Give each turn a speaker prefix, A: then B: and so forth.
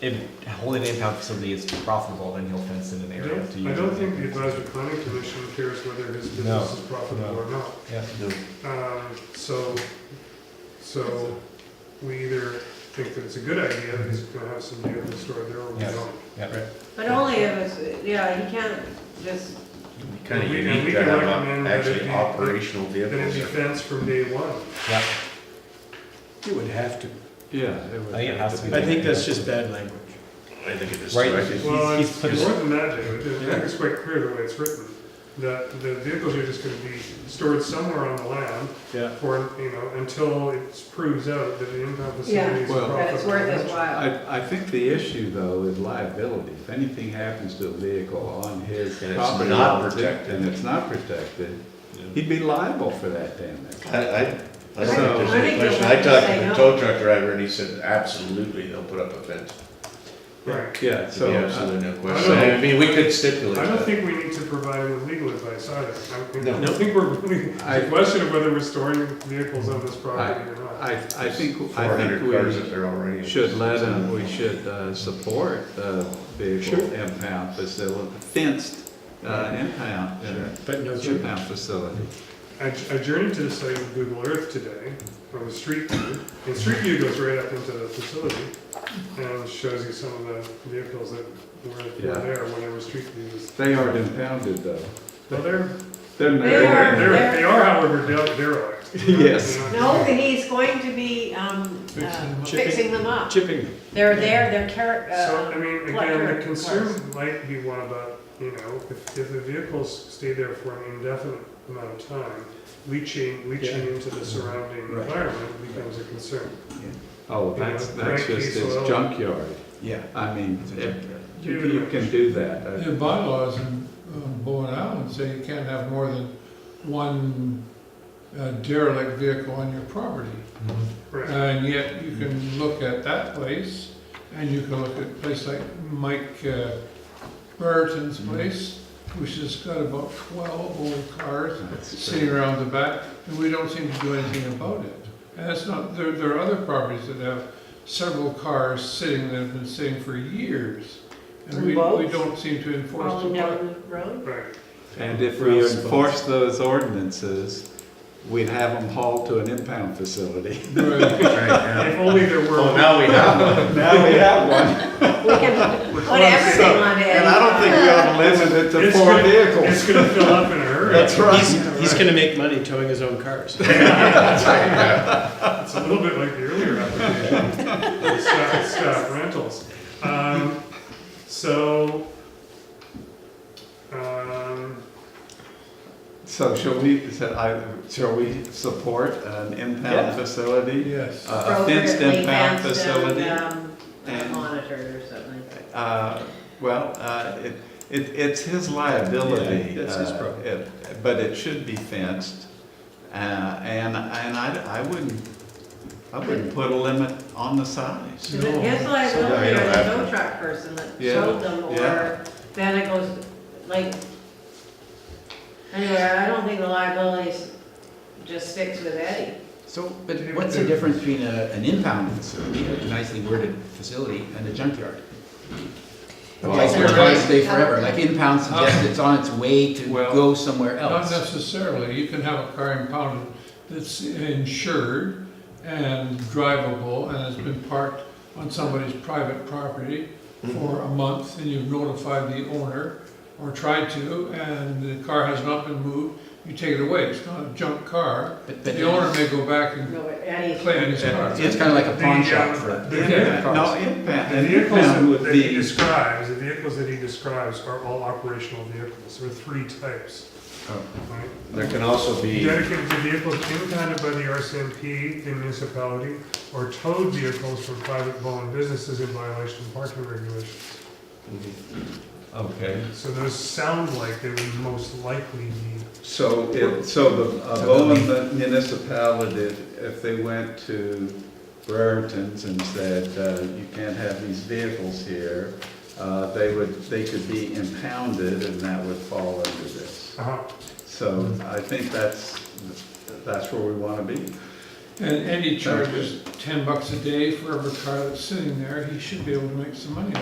A: If Holy Name Pound facility is profitable, then he'll fence in an
B: I
A: area to
B: don't, I
A: use.
B: don't
A: it.
B: think the advisory planning commission cares whether his
A: No,
B: business is profitable
A: no.
B: or not.
A: Yeah.
C: No,
B: Um, so, so we either think that it's a good idea that he's gonna have some vehicle stored there or we
A: Yes.
B: don't.
D: But only if it's, yeah, he can't just,
C: kind of
B: We- and we
C: unique to
B: can
C: have
B: recommend
C: uh,
B: that it
C: actually
B: be-
C: operational
B: Then it'd be
C: vehicles.
B: fenced from day one.
A: Yeah.
E: You would have to.
F: Yeah.
A: I think it has to be.
E: I think that's just bad language.
C: I think it is.
A: Right.
C: directed.
B: Well,
A: he's
B: it's
A: put
B: it's
A: it-
B: more than that, David, I
F: Yeah.
B: think it's quite clear the way it's written, that the vehicles are just gonna be stored somewhere on the land
F: Yeah,
B: for, you know, until it proves out that the impound
D: Yeah.
B: facility is
F: Well-
B: profitable.
D: that it's worth his while.
F: I, I think the issue though is liability. If anything happens to a vehicle on his
C: And it's
F: property.
C: not
F: or-
C: protected.
F: And it's not protected,
C: Yeah.
F: he'd be liable for that damage.
C: I, I, I
F: So-
C: think there's
D: I
C: a
D: think you'll
C: question.
D: have
C: I
D: to
C: talked
D: say
C: to the
D: no.
C: tow truck driver and he said, absolutely, they'll put up a fence.
B: Right.
F: Yeah, so.
C: Yeah,
F: uh,
C: absolutely, no
B: I
C: question.
B: don't-
C: I mean, we could stipulate
B: I don't
C: that.
B: think we need to provide him with legal advice either. I don't think- I
C: No.
B: don't think we're really, it's
F: I-
B: a question of whether we're storing vehicles on this property or not.
F: I, I think,
C: Four
F: I think
C: hundred cars up
F: we
C: there already.
F: should let him, we should uh, support the vehicle impound facility, fenced uh, impound, uh,
E: But no, ju-
F: impound facility.
B: I j- I journeyed to the site of Google Earth today, on the street view, and street view goes right up into the facility, and shows you some of the vehicles that were
F: Yeah.
B: were there whenever street view was.
F: They aren't impounded though.
B: Well, they're,
F: They're
D: They
B: they're,
D: are-
F: not.
B: they're- they are however de- derelict.
F: Yes.
B: They're not-
D: No, he's going to be, um, uh,
B: Fixing-
D: fixing them up.
E: chipping,
D: They're there, they're car,
B: So, I
D: uh,
B: mean, again, the concern might be one about, you know, if, if the vehicles stay there for an indefinite amount of time, leaching, leaching into the surrounding
E: Right.
B: environment becomes a concern.
F: Oh, that's,
B: Yeah,
F: that's
B: cranky
F: just
B: soil.
F: his junkyard.
E: yeah.
F: I mean,
E: it's a
F: if-
E: junkyard.
F: you you can do that.
G: The bylaws in on Bowen Island say you can't have more than one uh, derelict vehicle on your property.
B: Right,
G: And yet you can look at that place and you can look at a place like Mike uh, Brereton's
E: Mm-hmm.
G: place, which has got about twelve old cars
F: uh,
G: sitting around the back, and we don't seem to do anything about it. And that's not, there, there are other properties that have several cars sitting, that have been sitting for years. And
D: And
G: we, we
D: boats?
G: don't seem to enforce the
D: falling
G: law.
D: down the road.
B: right.
F: And if we enforce those ordinances, we'd have them hauled to an impound facility.
G: Right.
C: Right, yeah.
B: If only there
C: Well,
H: Oh,
B: were,
C: now we have one.
F: Now we have one.
D: We can put everything on it.
F: And I don't think we ought to limit it to
B: It's
F: four
B: good.
F: vehicles.
B: it's gonna fill up in a hurry.
E: He's, he's gonna make money towing his own cars.
B: It's a little bit like the earlier application, the staff, staff uh, rentals. Um, so, um,
F: So shall we, so I- shall we support an impound
E: Yeah.
F: facility?
G: Yes.
F: A fenced
D: Appropriately
F: impound
D: fenced
F: facility?
D: and, um,
F: and-
D: Monitored or something.
F: Uh, Well, uh, it, it, it's his liability.
E: Yeah, that's his
F: uh,
E: problem.
F: it- But it should be fenced, uh, and, and I, I wouldn't, I wouldn't put a limit on the size.
D: Is it his liability
C: No,
D: or
C: you don't
D: the
C: have
D: tow
C: to.
D: truck person that
F: Yeah,
D: sold them,
F: yeah.
D: or then it goes, like, anyway, I don't think the liability s- just sticks with Eddie.
H: So, but what's the difference between a, an impound facility, a nicely worded facility, and a junkyard? A place where cars stay forever, like impound suggests it's on its way to
F: Well,
H: go somewhere
G: Not
H: else.
G: necessarily, you can have a car impounded that's insured and drivable and has been parked on somebody's private property for a month and you've notified the owner or tried to and the car has not been moved, you take it away, it's not a junk car.
H: But- but
G: The owner
H: it's-
G: may go back and
D: No, but Eddie,
G: claim his car.
H: It's kind of like a pawn
B: The,
H: shop
B: uh,
H: for.
B: the-
H: different
F: Yeah,
H: cars.
F: No, impound,
B: The
F: an
B: vehicles
F: impound
B: that
F: would
B: that he
F: be,
B: describes, the vehicles that he describes are all operational vehicles, there are three types.
F: Oh.
B: Right?
C: There can also be,
B: Dedicated to vehicles impounded by the RCMP, the municipality, or towed vehicles from private Bowen businesses in violation of parking regulations.
F: okay,
B: So those sound like they would most likely be,
F: so, it- so the uh, Bowen municipality, if they went to Brereton's and said, uh, you can't have these vehicles here, uh, they would, they could be impounded, and that would fall under this.
B: uh-huh.
F: So I think that's, that's where we want to be.
G: And Eddie charges ten bucks a day for every car that's sitting there, he should be able to make some money